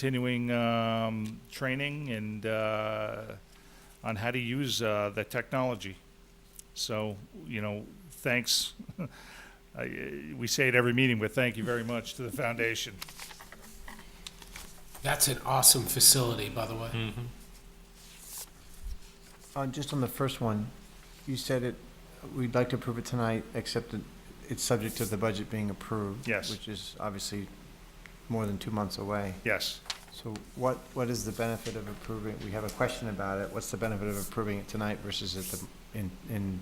continuing um, training and uh, on how to use uh, the technology. So, you know, thanks. I- We say it every meeting, but thank you very much to the foundation. That's an awesome facility, by the way. Hmm. Uh, Just on the first one, you said it, we'd like to approve it tonight, except that it's subject to the budget being approved. Yes. Which is obviously more than two months away. Yes. So what, what is the benefit of approving, we have a question about it, what's the benefit of approving it tonight versus at the, in, in,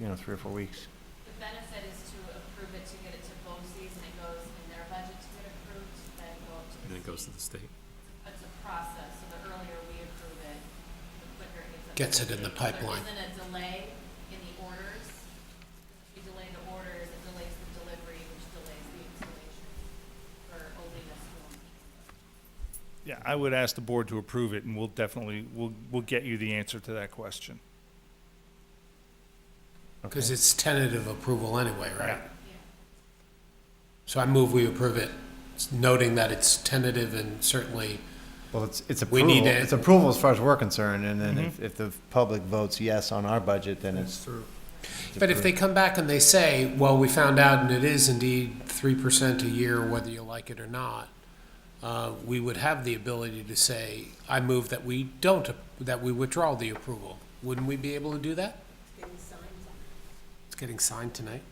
you know, three or four weeks? The benefit is to approve it, to get it to BOCES, and it goes in their budget to get approved, then go up to. And then it goes to the state. It's a process, so the earlier we approve it, the quicker it Gets gets. it in the up. pipeline. There isn't a delay in the orders. If you delay the orders, it delays the delivery, which delays the installation for Oleana School. Yeah, I would ask the board to approve it, and we'll definitely, we'll, we'll get you the answer to that question. Because it's tentative approval anyway, right? Yeah. So I move we approve it, noting that it's tentative and certainly, Well, it's, it's We approval, need to- it's approval as far as we're concerned, and then if, if the public votes yes on our budget, then it's. through. but if they come back and they say, well, we found out and it is indeed three percent a year, whether you like it or not, uh, we would have the ability to say, I move that we don't, that we withdraw the approval. Wouldn't we be able to do that? It's getting signed tonight.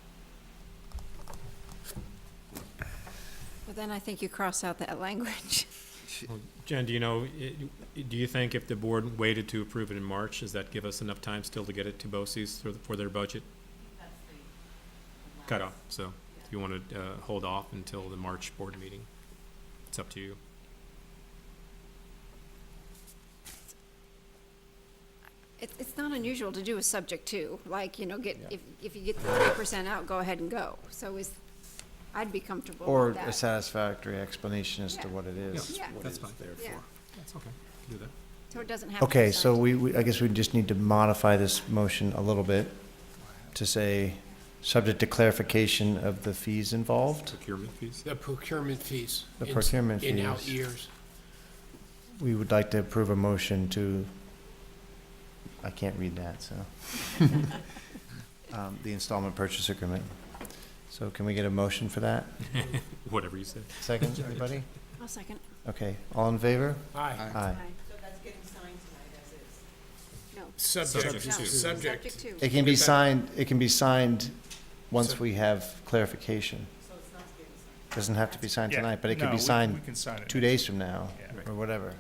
But then I think you cross out that language. Jen, do you know, i- do you think if the board waited to approve it in March, does that give us enough time still to get it to BOCES for, the- for their budget That's the. cutoff? So if you want to uh, hold off until the March board meeting, it's up to you. It, it's not unusual to do a subject to, like, you know, get, if, if you get the three percent out, go ahead and go. So is, I'd be comfortable Or with that. a satisfactory explanation as to Yeah. what it is. Yeah. what it That's is fine. there Yeah, That's okay. Do that. so it doesn't have to be Okay, so signed. we, we- I guess we just need to modify this motion a little bit to say, subject to clarification of the fees involved. Procurement fees? The procurement fees. The in- procurement In out fees. years. We would like to approve a motion to, I can't read that, so. Um, The installment purchase agreement. So can we get a motion for that? Whatever you say. Second, everybody? I'll second. Okay, all in favor? Aye. Aye. So that's getting signed tonight as is. No. Subject, Subject to. subject. Subject It to. can be signed, it can be signed once So- we have clarification. Doesn't have to be signed Yeah, tonight, but it no, could be we- signed We can sign it. two days from now, Yeah. Right. or whatever.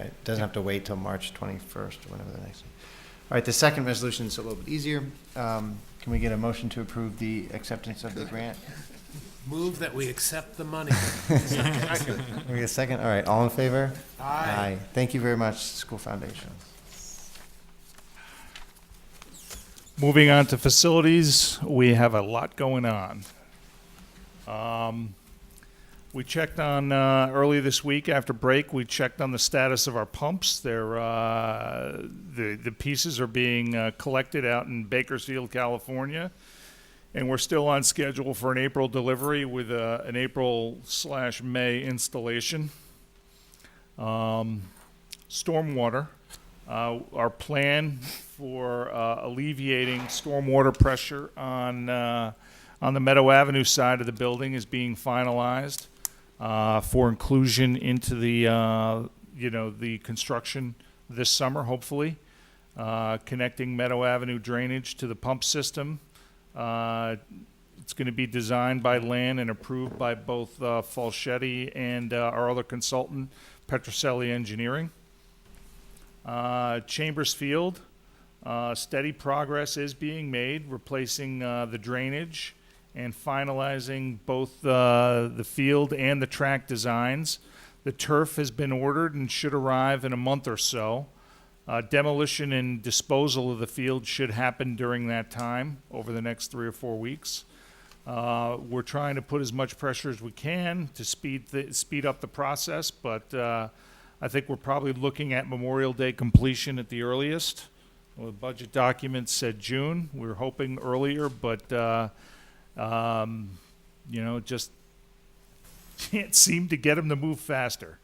Right, doesn't have to wait till March twenty-first, or whenever the next. All right, the second resolution is a little bit easier. Um, can we get a motion to approve the acceptance of the grant? Move that we accept the money. Can we get a second? All right, all in favor? Thank you very much, School Foundation. Moving on to facilities, we have a lot going on. Um, We checked on, uh, early this week after break, we checked on the status of our pumps. They're, uh, the, the pieces are being uh, collected out in Bakersfield, California. And we're still on schedule for an April delivery with uh, an April slash May installation. Um, Stormwater. Uh, Our plan for uh, alleviating stormwater pressure on, uh, on the Meadow Avenue side of the building is being finalized uh, for inclusion into the, uh, you know, the construction this summer, hopefully, Uh, connecting Meadow Avenue drainage to the pump system. Uh, It's going to be designed by Land and approved by both uh, Falchetti and uh, our other consultant, Petroselli Engineering. Uh, Chambers Field, uh, steady progress is being made, replacing uh, the drainage and finalizing both uh, the field and the track designs. The turf has been ordered and should arrive in a month or so. Uh, demolition and disposal of the field should happen during that time over the next three or four weeks. Uh, we're trying to put as much pressure as we can to speed the, speed up the process, but uh, I think we're probably looking at Memorial Day completion at the earliest. Well, the budget document said June. We were hoping earlier, but uh, um, you know, just can't seem to get them to move faster.